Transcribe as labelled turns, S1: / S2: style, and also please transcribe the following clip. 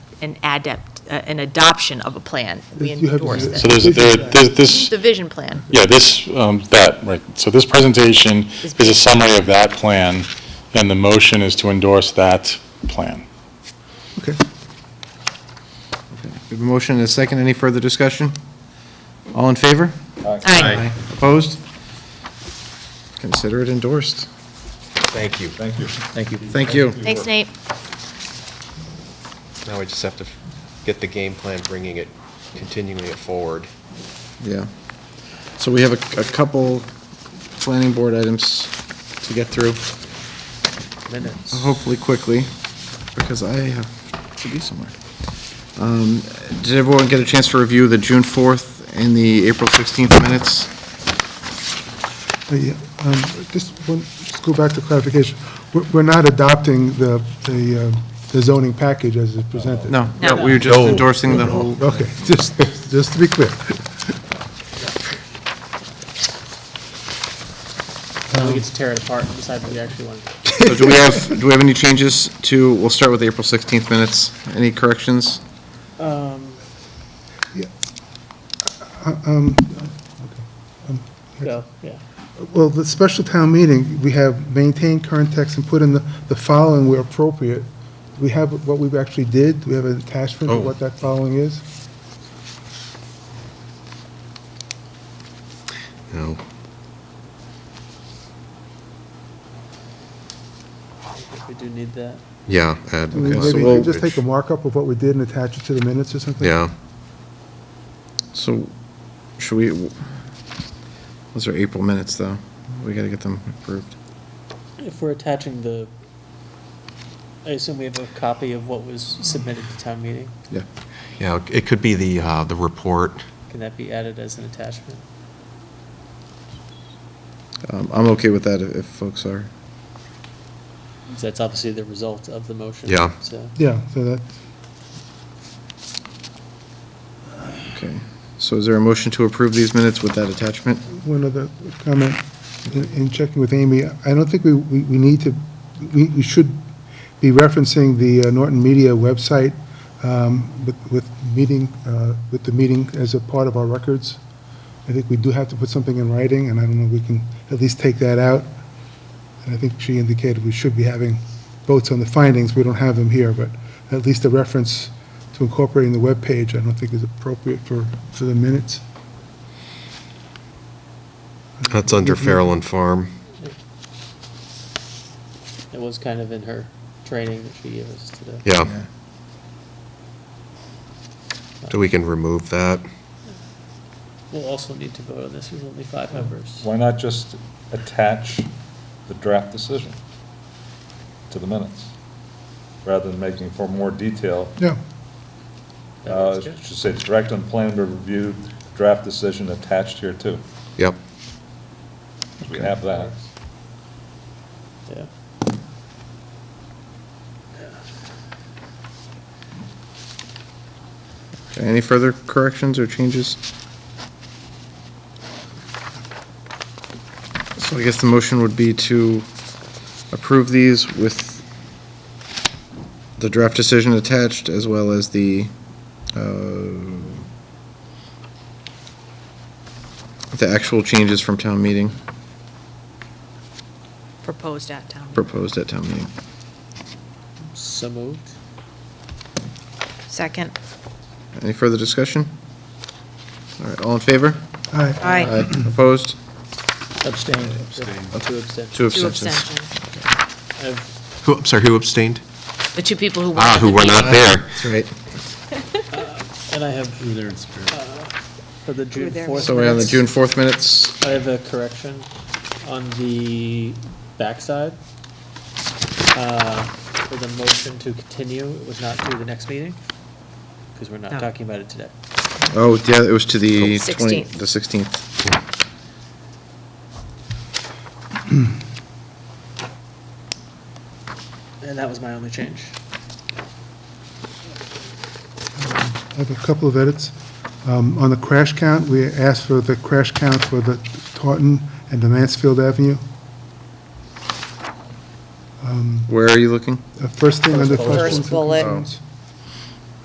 S1: an adept, uh, an adoption of a plan. We
S2: You have to
S1: endorse
S2: do it.
S1: this.
S3: So there's, there, there's this,
S1: The vision plan,
S3: yeah, this, um, that, right. So this presentation is a summary of that plan, and the motion is to endorse that plan.
S2: Okay.
S4: We have a motion and a second. Any further discussion? All in favor?
S1: aye.
S4: Opposed? Consider it endorsed.
S5: Thank you. Thank you.
S4: Thank you. Thank you.
S1: Thanks, Nate.
S5: Now we just have to f- get the game plan, bringing it, continuing it forward.
S4: Yeah. So we have a, a couple planning board items to get through,
S5: Minutes.
S4: hopefully quickly, because I have to be somewhere. Um, Did everyone get a chance to review the June 4th and the April 16th minutes?
S2: Uh, yeah, um, Just one, just go back to clarification. We're- We're not adopting the the um, the zoning package as it's presented?
S4: No,
S1: No.
S4: we were just endorsing the whole.
S2: Okay, just, just to be clear.
S6: Now we get to tear it apart and decide what we actually want.
S4: So do we have, do we have any changes to, we'll start with the April 16th minutes. Any corrections?
S6: Um, go, Oh, yeah.
S2: Well, the special town meeting, we have maintained current text and put in the the following where appropriate. We have what we actually did, we have an
S4: Oh.
S2: attachment of what that following is.
S4: No.
S6: I think we do need that.
S7: Yeah, add,
S2: I mean,
S4: Okay, so
S2: Maybe you
S4: we'll-
S2: could just take a markup of what we did and attach it to the minutes or something?
S7: yeah.
S4: So, should we, those are April minutes, though. We gotta get them approved.
S6: If we're attaching the, I assume we have a copy of what was submitted to town meeting.
S4: Yeah.
S7: Yeah, it could be the, uh, the report.
S6: Can that be added as an attachment?
S4: Um, I'm okay with that if if folks are.
S6: 'Cause That's obviously the result of the motion.
S7: Yeah.
S6: So,
S2: Yeah, so that,
S4: Okay. So is there a motion to approve these minutes with that attachment?
S2: one other comment, in in checking with Amy, I don't think we, we we need to, we, we should be referencing the uh, Norton Media website um, with, with meeting, uh, with the meeting as a part of our records. I think we do have to put something in writing, and I don't know, if we can at least take that out. And I think she indicated we should be having votes on the findings, we don't have them here, but at least a reference to incorporating the webpage, I don't think is appropriate for, for the minutes.
S7: That's under Fairland Farm.
S6: It was kind of in her training that she gave us today.
S7: Yeah. So we can remove that.
S6: We'll also need to vote on this, there's only five members.
S8: Why not just attach the draft decision to the minutes, rather than making for more detail?
S2: Yeah.
S8: uh, it Should say, direct on plan to review draft decision attached here too.
S7: Yep.
S8: We have that.
S6: Yeah.
S4: Okay, Any further corrections or changes? So I guess the motion would be to approve these with the draft decision attached as well as the, uh, the actual changes from town meeting,
S1: Proposed at town.
S4: proposed at town meeting.
S6: So moved.
S1: Second.
S4: Any further discussion? All right, all in favor?
S2: Aye.
S1: Aye.
S4: Opposed?
S6: Abstained. Two abstentions.
S4: Two
S1: Two
S4: abstentions.
S1: abstentions.
S6: I've-
S7: Who, I'm sorry, who abstained?
S1: The two people who were at
S7: Ah,
S1: the
S7: who were
S1: meeting.
S7: not there.
S4: That's right.
S6: And I have. either in spirit. For the June
S1: there.
S6: 4th.
S4: So we're on the
S6: minutes,
S4: June 4th minutes.
S6: I have a correction on the backside. Uh, For the motion to continue, it was not to the next meeting, because we're not
S1: No.
S6: talking about it today.
S4: Oh, yeah, it was to the 20,
S1: 16th.
S4: the 16th.
S6: And that was my only change.
S2: I have a couple of edits. Um, On the crash count, we asked for the crash count for the Taunton and the Mansfield Avenue.
S4: Where are you looking?
S2: The first thing under
S1: First
S2: questions and
S1: bullet.
S4: Oh,
S2: concerns.